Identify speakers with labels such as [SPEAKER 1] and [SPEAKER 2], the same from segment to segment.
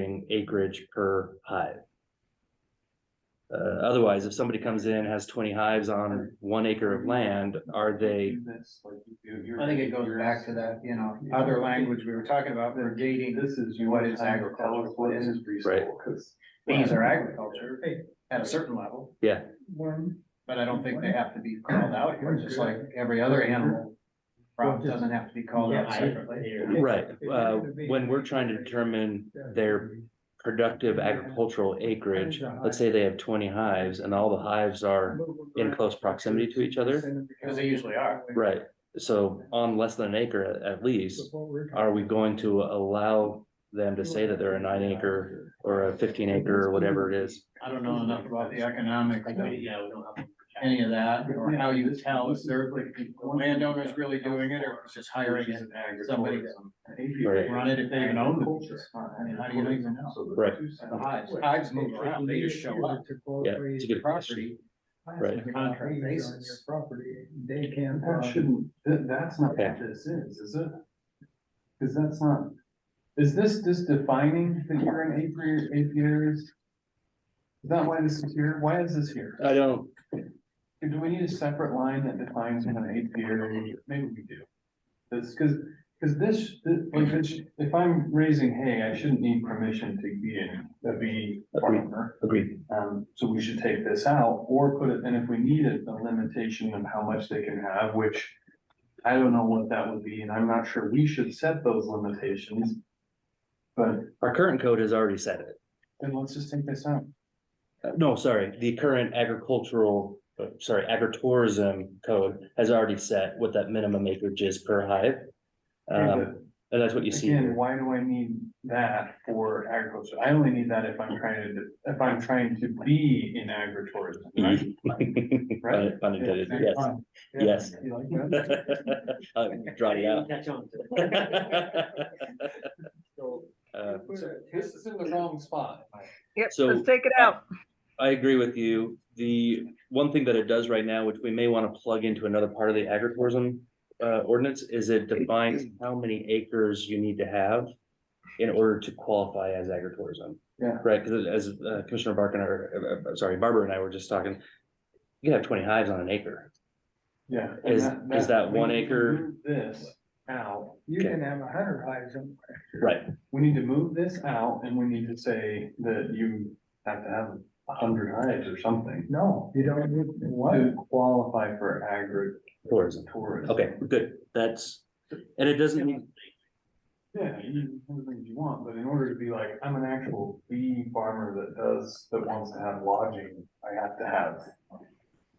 [SPEAKER 1] in acreage per hive. Uh, otherwise, if somebody comes in, has twenty hives on one acre of land, are they,
[SPEAKER 2] I think it goes back to that, you know, other language we were talking about, we're gating,
[SPEAKER 3] This is.
[SPEAKER 2] what is agriculture, what is-
[SPEAKER 1] Right.
[SPEAKER 2] these are agriculture at a certain level,
[SPEAKER 1] yeah,
[SPEAKER 2] but I don't think they have to be called out here, just like every other animal. Problem doesn't have to be called out separately.
[SPEAKER 1] right, uh, when we're trying to determine their productive agricultural acreage. Let's say they have twenty hives and all the hives are in close proximity to each other,
[SPEAKER 2] Because they usually are.
[SPEAKER 1] right? So on less than an acre at, at least, are we going to allow them to say that they're a nine acre or a fifteen acre or whatever it is?
[SPEAKER 2] I don't know enough about the economics of
[SPEAKER 3] Yeah, we don't have.
[SPEAKER 2] any of that, or how you tell if they're, the landowner's really doing it, or it's just hiring it. somebody to
[SPEAKER 1] Right.
[SPEAKER 2] Run it if they even own the beaches. I mean, how do you even know?
[SPEAKER 1] Right.
[SPEAKER 2] The hives, hives move around, they just show up.
[SPEAKER 1] Yeah, it's a good question.
[SPEAKER 2] Property,
[SPEAKER 1] Right.
[SPEAKER 2] Contract basis.
[SPEAKER 4] Property, they can.
[SPEAKER 3] That shouldn't, that, that's not
[SPEAKER 1] Okay.
[SPEAKER 3] what this is, is it? Cause that's not, is this just defining that you're an apiary, apiaries? Is that why this is here? Why is this here?
[SPEAKER 1] I don't,
[SPEAKER 3] Do we need a separate line that defines what an apiary, is? maybe we do? That's cause, cause this, this- like, this- if I'm raising hay, I shouldn't need permission to be in, to be farmer.
[SPEAKER 1] agree,
[SPEAKER 3] Um, so we should take this out or put it, and if we needed a limitation of how much they can have, which. I don't know what that would be, and I'm not sure we should set those limitations. But
[SPEAKER 1] our current code has already said it.
[SPEAKER 3] then let's just take this out.
[SPEAKER 1] Uh, No, sorry, the current agricultural, uh, sorry, agritourism code has already set what that minimum acreage is per hive. Um, and that's what you see
[SPEAKER 3] uh, Again,
[SPEAKER 1] here.
[SPEAKER 3] why do I need that for agriculture? I only need that if I'm trying to, if I'm trying to be in agritourism, right?
[SPEAKER 1] Mm-hmm.
[SPEAKER 3] Right?
[SPEAKER 1] Pun- pun intended, yes. Yes.
[SPEAKER 3] You like that?
[SPEAKER 1] I'll Draw it out.
[SPEAKER 4] Catch on to
[SPEAKER 1] Uh,
[SPEAKER 3] This is in the wrong spot.
[SPEAKER 5] Yep,
[SPEAKER 1] So-
[SPEAKER 5] let's take it out.
[SPEAKER 1] I agree with you. The one thing that it does right now, which we may want to plug into another part of the agritourism uh, ordinance, is it defines how many acres you need to have in order to qualify as agritourism.
[SPEAKER 3] Yeah.
[SPEAKER 1] Right, because as uh, Commissioner Barkin, or, uh, uh, sorry, Barbara and I were just talking, you can have twenty hives on an acre.
[SPEAKER 3] Yeah.
[SPEAKER 1] Is-
[SPEAKER 3] and
[SPEAKER 1] is that
[SPEAKER 3] we
[SPEAKER 1] one
[SPEAKER 3] need to
[SPEAKER 1] acre-
[SPEAKER 3] move This out.
[SPEAKER 4] You can have a hundred hives in
[SPEAKER 1] Right.
[SPEAKER 3] We need to move this out and we need to say that you have to have a hundred hives or something
[SPEAKER 4] No, you don't need, what?
[SPEAKER 3] to qualify for
[SPEAKER 1] Tourism.
[SPEAKER 3] agritourism.
[SPEAKER 1] Okay, good. That's, and it doesn't, mean-
[SPEAKER 3] Yeah, you can do things you want, but in order to be like, I'm an actual bee farmer that does, that wants to have lodging, I have to have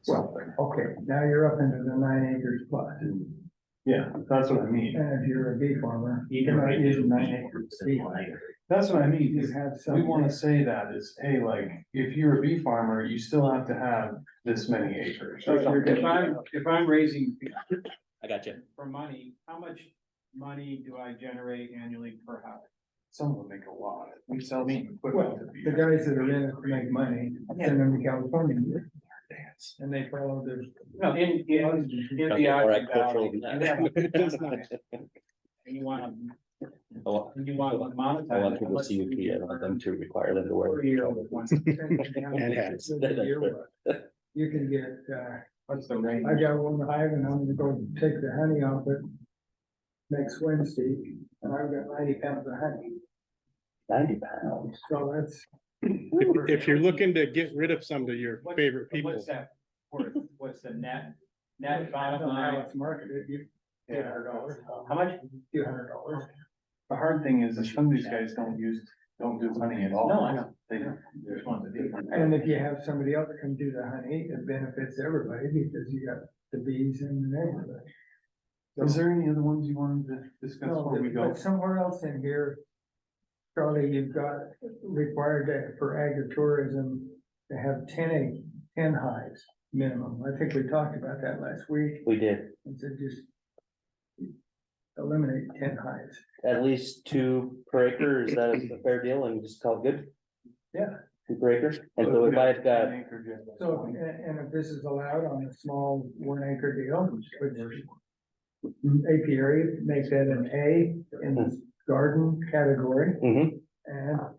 [SPEAKER 3] something.
[SPEAKER 4] Okay, now you're up into the nine acres plus, and
[SPEAKER 3] Yeah, that's what I mean.
[SPEAKER 4] if you're a bee farmer.
[SPEAKER 2] You can
[SPEAKER 4] you're
[SPEAKER 2] make
[SPEAKER 4] using nine acres. deep.
[SPEAKER 3] That's what I mean,
[SPEAKER 4] You
[SPEAKER 3] is
[SPEAKER 4] have
[SPEAKER 3] we
[SPEAKER 4] some.
[SPEAKER 3] wanna say that is, hey, like, if you're a bee farmer, you still have to have this many acres.
[SPEAKER 2] So if I'm, if I'm raising
[SPEAKER 1] I got you.
[SPEAKER 2] for money, how much money do I generate annually per house?
[SPEAKER 3] Some will make a lot. We sell some equipment
[SPEAKER 4] Well,
[SPEAKER 3] to be.
[SPEAKER 4] the guys that are in it make money, send them to California. And they follow their.
[SPEAKER 2] No, in, in, in
[SPEAKER 1] Okay,
[SPEAKER 2] the.
[SPEAKER 1] more
[SPEAKER 2] Ogden
[SPEAKER 1] agricultural
[SPEAKER 2] Valley,
[SPEAKER 1] than
[SPEAKER 2] you have- that's
[SPEAKER 1] that.
[SPEAKER 2] nice. And you want to,
[SPEAKER 1] I want
[SPEAKER 2] and you want to monetize.
[SPEAKER 1] I want
[SPEAKER 2] it,
[SPEAKER 1] people to
[SPEAKER 2] let's
[SPEAKER 1] see
[SPEAKER 2] do
[SPEAKER 1] you, I don't want them
[SPEAKER 2] it
[SPEAKER 1] to require them to
[SPEAKER 2] for a year
[SPEAKER 1] wear.
[SPEAKER 2] with one-
[SPEAKER 1] And hats. That's fair.
[SPEAKER 4] You can get, uh,
[SPEAKER 2] What's the rate?
[SPEAKER 4] I got one hive and I'm gonna go take the honey off it next Wednesday, and I've got ninety pounds of honey,
[SPEAKER 1] Ninety pounds.
[SPEAKER 4] so that's.
[SPEAKER 6] If, if you're looking to get rid of some of your
[SPEAKER 2] What-
[SPEAKER 6] favorite people,
[SPEAKER 2] What's that, worth? what's the net,
[SPEAKER 4] that's
[SPEAKER 2] net bottom line?
[SPEAKER 4] It's marketed, you,
[SPEAKER 3] Yeah.
[SPEAKER 2] How much?
[SPEAKER 4] two hundred dollars.
[SPEAKER 3] The hard thing is that some of these guys don't use, don't do honey at all.
[SPEAKER 2] No, I know.
[SPEAKER 3] They,
[SPEAKER 2] There's one to do.
[SPEAKER 4] And if you have somebody else that can do the honey, it benefits everybody because you got the bees in the neighborhood.
[SPEAKER 3] is there any other ones you wanted to discuss
[SPEAKER 4] No,
[SPEAKER 3] before we go?
[SPEAKER 4] But somewhere else in here, Charlie, you've got required that for agritourism to have ten egg, ten hives minimum. I think we talked about that last week
[SPEAKER 1] We did
[SPEAKER 4] and said just eliminate ten hives.
[SPEAKER 1] at least two per acre, is that a fair deal and just call it good?
[SPEAKER 4] Yeah.
[SPEAKER 1] Two per acre, and so if I've got,
[SPEAKER 4] So, and, and if this is allowed on a small one acre deal, which apiary makes that an A in the garden category
[SPEAKER 1] Mhm.
[SPEAKER 4] and